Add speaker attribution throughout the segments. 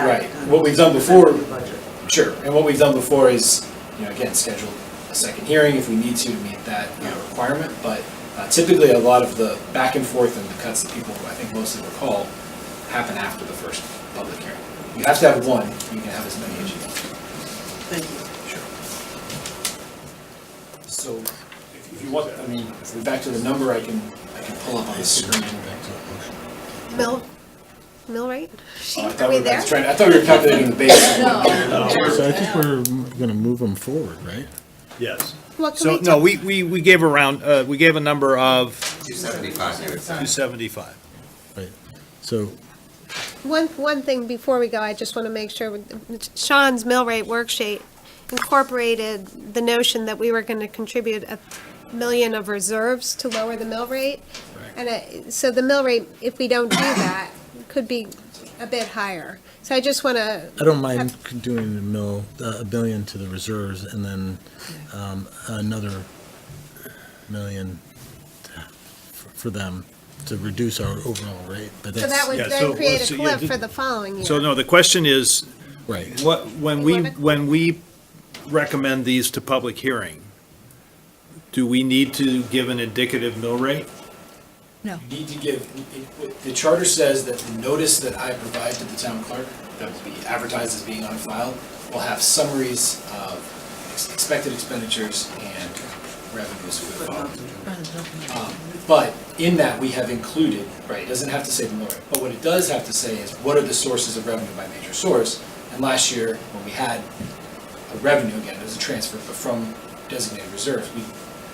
Speaker 1: Right.
Speaker 2: and
Speaker 1: What we've done before-
Speaker 2: amend the budget.
Speaker 1: Sure, and what we've done before is, you know, again, schedule a second hearing if we need to to meet that you know, requirement, but uh, typically, a lot of the back and forth and the cuts that people, I think, mostly recall, happen after the first public hearing. You have to have one, you can have as many as you want.
Speaker 2: Thank you.
Speaker 1: Sure. So, if if you want, I mean, if we're back to the number, I can, I can pull up on the screen.
Speaker 3: Mill, Millwright?
Speaker 1: Oh, I
Speaker 3: Sheet,
Speaker 1: thought
Speaker 3: are we
Speaker 1: we were
Speaker 3: there?
Speaker 1: trying- I thought we were calculating the base.
Speaker 4: No.
Speaker 5: So I think we're gonna move them forward, right?
Speaker 4: Yes.
Speaker 3: What can
Speaker 4: So,
Speaker 3: we
Speaker 4: no,
Speaker 3: do?
Speaker 4: we, we, we gave around, uh, we gave a number of
Speaker 6: 275, you would say.
Speaker 4: 275.
Speaker 5: Right. So,
Speaker 3: One, one thing before we go, I just want to make sure, with- Sean's Millwright worksheet incorporated the notion that we were going to contribute a million of reserves to lower the mill rate. And it- so the mill rate, if we don't do that, could be a bit higher. So I just want to,
Speaker 5: I don't mind doing a mill, uh, a billion to the reserves and then, um, another million to- for them to reduce our overall rate, but
Speaker 3: so that
Speaker 5: that's,
Speaker 3: would
Speaker 4: Yeah,
Speaker 3: then
Speaker 4: so-
Speaker 3: create
Speaker 4: so
Speaker 3: a
Speaker 4: yeah,
Speaker 3: cliff
Speaker 4: did-
Speaker 3: for the following year.
Speaker 4: So no, the question is,
Speaker 5: right.
Speaker 4: what, when we,
Speaker 3: Eleven.
Speaker 4: when we recommend these to public hearing, do we need to give an indicative mill rate?
Speaker 1: You need to give, it- it- the charter says that the notice that I provide to the town clerk, that will be advertised as being on file, will have summaries of ex- expected expenditures and revenues for the following. Um, But in that, we have included, right, it doesn't have to say the mill rate, but what it does have to say is what are the sources of revenue by major source? And last year, when we had a revenue, again, it was a transfer, but from designated reserves, we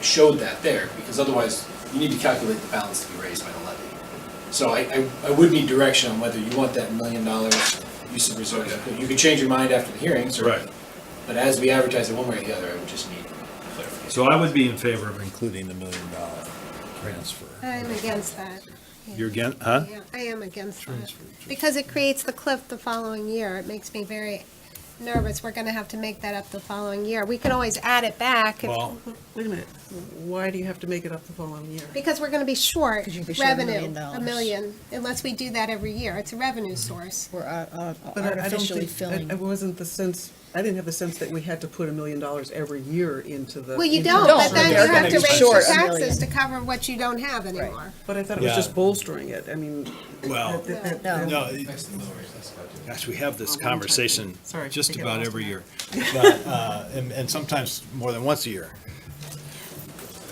Speaker 1: showed that there, because otherwise, you need to calculate the balance to be raised by the levy. So I, I, I would need direction on whether you want that million dollars use of reserves. You could change your mind after the hearings, or,
Speaker 4: Right.
Speaker 1: but as we advertise it one way or the other, I would just need clarification.
Speaker 4: So I would be in favor of including the million dollar transfer.
Speaker 3: I'm against that.
Speaker 4: You're again, huh?
Speaker 3: Yeah, I am against that, because it creates the cliff the following year. It makes me very nervous. We're gonna have to make that up the following year. We can always add it back, if-
Speaker 4: Well,
Speaker 2: Wait a minute, why do you have to make it up the following year?
Speaker 3: because we're gonna be short
Speaker 7: Because you'd be short a
Speaker 3: revenue,
Speaker 7: million
Speaker 3: a
Speaker 7: dollars.
Speaker 3: million, unless we do that every year. It's a revenue source.
Speaker 7: We're uh, uh,
Speaker 2: But I- I don't
Speaker 7: artificially
Speaker 2: think- I-
Speaker 7: filling.
Speaker 2: It wasn't the sense, I didn't have the sense that we had to put a million dollars every year into the.
Speaker 3: Well, you
Speaker 2: into
Speaker 3: don't,
Speaker 2: the-
Speaker 3: but then
Speaker 7: they're
Speaker 3: you have to
Speaker 7: gonna be
Speaker 3: raise your
Speaker 7: short a
Speaker 3: taxes
Speaker 7: million.
Speaker 3: to cover what you don't have anymore.
Speaker 2: But I thought it was
Speaker 4: Yeah.
Speaker 2: just bolstering it, I mean.
Speaker 4: Well,
Speaker 2: that- that-
Speaker 7: No.
Speaker 2: that-
Speaker 4: no, Gosh, we have this conversation
Speaker 2: Sorry, I
Speaker 4: just
Speaker 2: get
Speaker 4: about
Speaker 2: lost
Speaker 4: every
Speaker 2: in
Speaker 4: year, But, uh, and and sometimes more than once a year.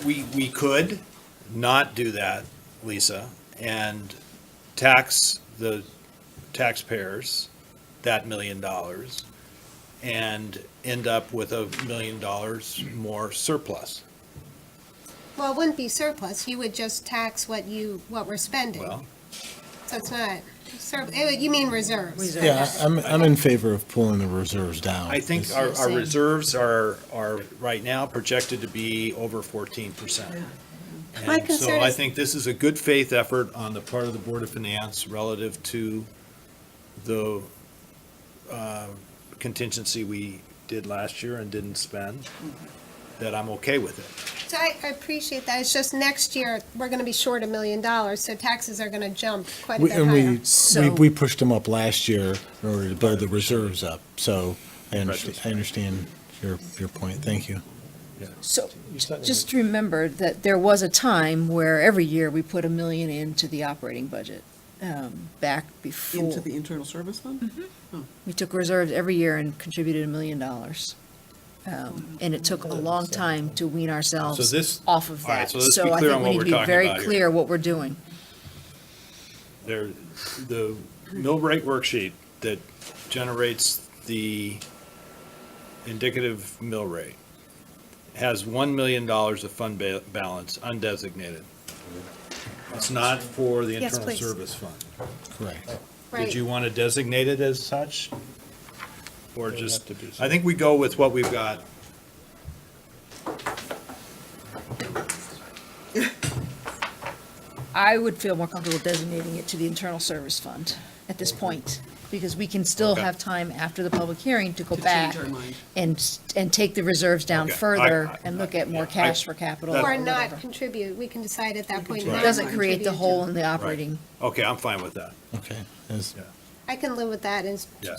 Speaker 4: We, we could not do that, Lisa, and tax the taxpayers that million dollars and end up with a million dollars more surplus.
Speaker 3: Well, it wouldn't be surplus. You would just tax what you, what we're spending.
Speaker 4: Well,
Speaker 3: So it's not, sur- eh, you mean reserves.
Speaker 5: Yeah, I- I'm, I'm in favor of pulling the reserves down.
Speaker 4: I think
Speaker 5: It's-
Speaker 4: our, our reserves are, are right now projected to be over fourteen percent.
Speaker 3: My
Speaker 4: And so
Speaker 3: concern
Speaker 4: I
Speaker 3: is-
Speaker 4: think this is a good faith effort on the part of the Board of Finance relative to the uh, contingency we did last year and didn't spend,
Speaker 3: Mm-hmm.
Speaker 4: that I'm okay with it.
Speaker 3: So I, I appreciate that. It's just next year, we're gonna be short a million dollars, so taxes are gonna jump quite a
Speaker 5: We,
Speaker 3: bit
Speaker 5: and
Speaker 3: higher.
Speaker 5: we, we, we pushed them up last year in order to build the reserves up, so I understand, I understand your, your point, thank you.
Speaker 7: So just remember that there was a time where every year we put a million into the operating budget, um, back
Speaker 2: Into
Speaker 7: before.
Speaker 2: the internal service fund?
Speaker 7: We took reserves every year and contributed a million dollars. Um, And it took a long time to wean
Speaker 4: So this-
Speaker 7: ourselves off of
Speaker 4: all right,
Speaker 7: that.
Speaker 4: so let's be
Speaker 7: So I
Speaker 4: clear
Speaker 7: think
Speaker 4: on
Speaker 7: we
Speaker 4: what
Speaker 7: need
Speaker 4: we're
Speaker 7: to be
Speaker 4: talking
Speaker 7: very
Speaker 4: about here.
Speaker 7: clear what we're doing.
Speaker 4: There, the mill rate worksheet that generates the indicative mill rate has $1 million of fund ba- balance undesignated. It's not for the
Speaker 3: Yes,
Speaker 4: internal
Speaker 3: please.
Speaker 4: service fund.
Speaker 5: Correct.
Speaker 3: Right.
Speaker 4: Did you want to designate it as such? Or just,
Speaker 5: have to be
Speaker 4: I think we go with what we've got.
Speaker 7: I would feel more comfortable designating it to the Internal Service Fund at this point, because we can still
Speaker 4: Okay.
Speaker 7: have time after the public hearing to go
Speaker 2: To change
Speaker 7: back
Speaker 2: our mind.
Speaker 7: and, s- and take the reserves down
Speaker 4: Okay. I-
Speaker 7: further
Speaker 4: I-
Speaker 7: and look at more
Speaker 4: yeah, I-
Speaker 7: cash for capital or
Speaker 3: Or
Speaker 7: whatever.
Speaker 3: not contribute, we can decide at that point. in
Speaker 7: It
Speaker 3: time
Speaker 7: doesn't
Speaker 3: what
Speaker 7: create the
Speaker 3: contribute to.
Speaker 7: hole in the operating.
Speaker 4: Okay, I'm fine with that.
Speaker 5: Okay, as-
Speaker 4: Yeah.
Speaker 3: I can live with that as
Speaker 4: Yeah.